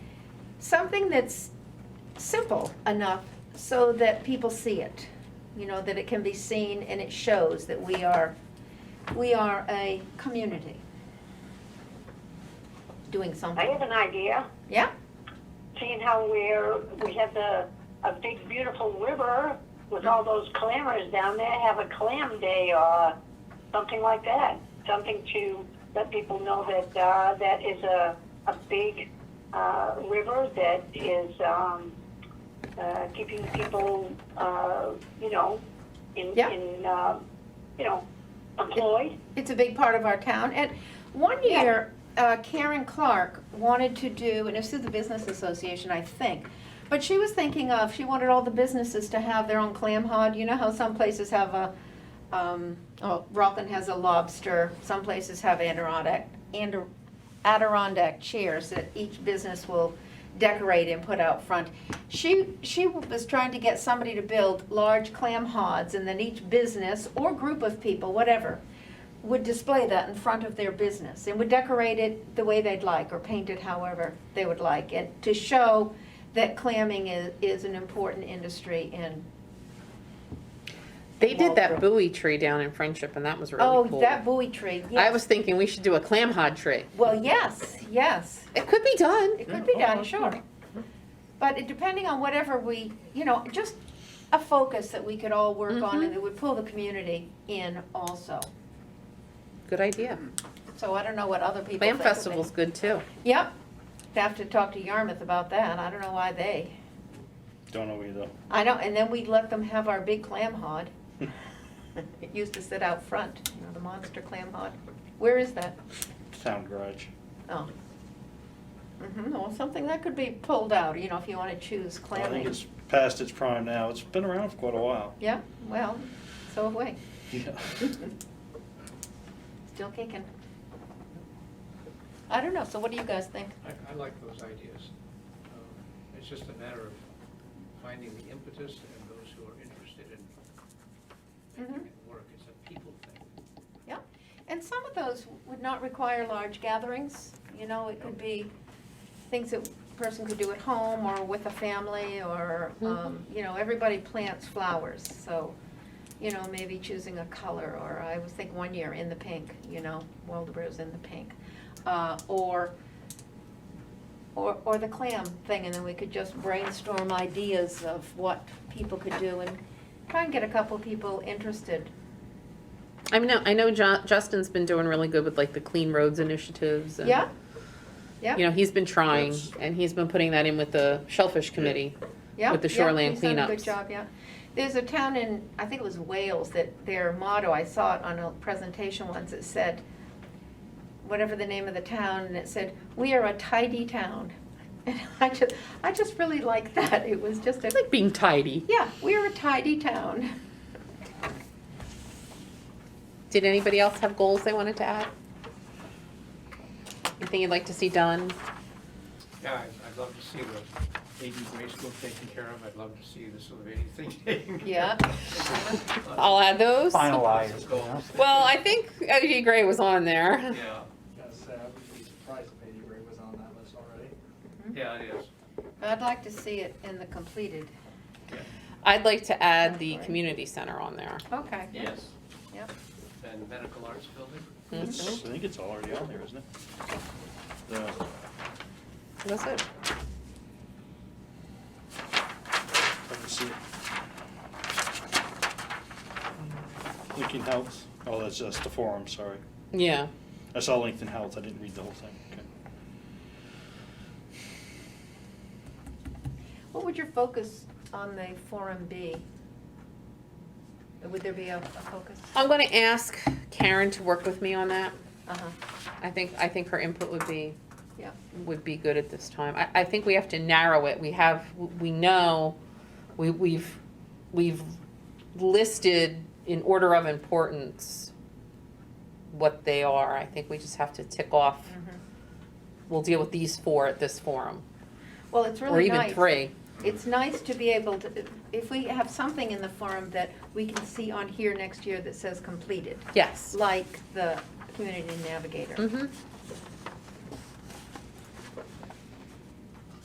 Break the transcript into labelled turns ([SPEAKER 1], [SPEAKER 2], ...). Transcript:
[SPEAKER 1] something that's simple enough so that people see it. You know, that it can be seen and it shows that we are, we are a community doing
[SPEAKER 2] I
[SPEAKER 1] something.
[SPEAKER 2] have an idea,
[SPEAKER 1] Yeah?
[SPEAKER 2] seeing how we're, we have the, a big beautiful river with all those clammers down there, have a clam day or something like that. Something to let people know that, uh, that is a, a big, uh, river that is, um, uh, keeping people, uh, you know, in,
[SPEAKER 1] Yeah.
[SPEAKER 2] in, uh, you know, employed.
[SPEAKER 1] It's a big part of our town. And one
[SPEAKER 2] Yeah.
[SPEAKER 1] year, uh, Karen Clark wanted to do, and it's through the Business Association, I think, but she was thinking of, she wanted all the businesses to have their own clam hod. You know how some places have a, um, oh, Rockland has a lobster, some places have Adirondack, Adir- Adirondack chairs that each business will decorate and put out front. She, she was trying to get somebody to build large clam hods and then each business or group of people, whatever, would display that in front of their business and would decorate it the way they'd like or paint it however they would like and to show that clamming is, is an important industry and,
[SPEAKER 3] They did that buoy tree down in Friendship, and that was really
[SPEAKER 1] oh,
[SPEAKER 3] cool.
[SPEAKER 1] that buoy tree,
[SPEAKER 3] I
[SPEAKER 1] yes.
[SPEAKER 3] was thinking we should do a clam hod tree.
[SPEAKER 1] Well, yes, yes,
[SPEAKER 3] It could be done.
[SPEAKER 1] it could be done, sure. But it- depending on whatever we, you know, just a focus that we could all work on and
[SPEAKER 3] Mhm.
[SPEAKER 1] it would pull the community in also.
[SPEAKER 3] Good idea.
[SPEAKER 1] So I don't know what other people think
[SPEAKER 3] Clam
[SPEAKER 1] of it.
[SPEAKER 3] festival's good too.
[SPEAKER 1] Yep, have to talk to Yarmouth about that, I don't know why they.
[SPEAKER 4] Don't know either.
[SPEAKER 1] I know, and then we'd let them have our big clam hod. It used to sit out front, you know, the monster clam hod. Where is that?
[SPEAKER 4] Sound garage.
[SPEAKER 1] Oh. hmm well, something that could be pulled out, you know, if you wanna choose
[SPEAKER 4] I think
[SPEAKER 1] clamming.
[SPEAKER 4] it's past its prime now. It's been around for quite a while.
[SPEAKER 1] Yeah, well, so have we,
[SPEAKER 4] Yeah.
[SPEAKER 1] still kicking. I don't know, so what do you guys think?
[SPEAKER 5] I, I like those ideas. Um, It's just a matter of finding the impetus and those who are interested in making
[SPEAKER 3] Mm-hmm.
[SPEAKER 1] Mhm.
[SPEAKER 5] it work. It's a people thing.
[SPEAKER 1] Yeah, and some of those would not require large gatherings, you know, it could be things that a person could do at home or with a family or, um, you know, everybody plants flowers, so, you know, maybe choosing a color, or I was thinking one year in the pink, you know, Waldeboro's in the pink. Uh, or, or, or the clam thing, and then we could just brainstorm ideas of what people could do and try and get a couple people interested.
[SPEAKER 3] I mean, I know Ju- Justin's been doing really good with like the clean roads initiatives. and,
[SPEAKER 1] Yeah? Yeah?
[SPEAKER 3] You know, he's been trying,
[SPEAKER 4] Yes.
[SPEAKER 3] and he's been putting that in with the Shellfish Committee.
[SPEAKER 1] Yeah,
[SPEAKER 3] with the
[SPEAKER 1] yeah,
[SPEAKER 3] shoreline
[SPEAKER 1] he's done a Good
[SPEAKER 3] cleanups.
[SPEAKER 1] job, yeah. There's a town in, I think it was Wales, that their motto, I saw it on a presentation once, it said, whatever the name of the town, and it said, "We are a tidy town." And I just, I just really liked that. It was just
[SPEAKER 3] I
[SPEAKER 1] a,
[SPEAKER 3] like being tidy.
[SPEAKER 1] yeah, we are a tidy town.
[SPEAKER 3] Did anybody else have goals they wanted to add? Anything you'd like to see done?
[SPEAKER 5] Yeah, I'd, I'd love to see the AD grade school taken care of. I'd love to see the Sylvania thing taken
[SPEAKER 1] Yeah.
[SPEAKER 5] care of.
[SPEAKER 3] I'll add those.
[SPEAKER 5] Lots of goals.
[SPEAKER 3] Well, I think OG Gray was on there.
[SPEAKER 5] Yeah,
[SPEAKER 6] Gotta say, I would be surprised if Lady Ray was on that list already.
[SPEAKER 5] yeah, it is.
[SPEAKER 1] I'd like to see it in the completed.
[SPEAKER 3] I'd like to add the community center on there.
[SPEAKER 1] Okay.
[SPEAKER 5] Yes.
[SPEAKER 1] Yep.
[SPEAKER 5] And medical arts building.
[SPEAKER 3] Mhm.
[SPEAKER 4] It's- I think it's already on there, isn't it? The-
[SPEAKER 3] That's it.
[SPEAKER 4] let me see it. Lincoln Health. Oh, that's just the forum, sorry.
[SPEAKER 3] Yeah.
[SPEAKER 4] I saw Lincoln Health. I didn't read the whole thing. Okay.
[SPEAKER 1] What would your focus on the forum be? Would there be a, a focus?
[SPEAKER 3] I'm gonna ask Karen to work with me on that.
[SPEAKER 1] Uh-huh,
[SPEAKER 3] I think, I think her input would be,
[SPEAKER 1] yeah.
[SPEAKER 3] would be good at this time. I, I think we have to narrow it. We have, we know, we, we've, we've listed in order of importance what they are. I think we just have to tick off,
[SPEAKER 1] mhm.
[SPEAKER 3] we'll deal with these four at this forum,
[SPEAKER 1] Well, it's
[SPEAKER 3] or
[SPEAKER 1] really nice.
[SPEAKER 3] even three.
[SPEAKER 1] It's nice to be able to, if we have something in the forum that we can see on here next year that says completed,
[SPEAKER 3] Yes.
[SPEAKER 1] like the community navigator.
[SPEAKER 3] Mm-hmm.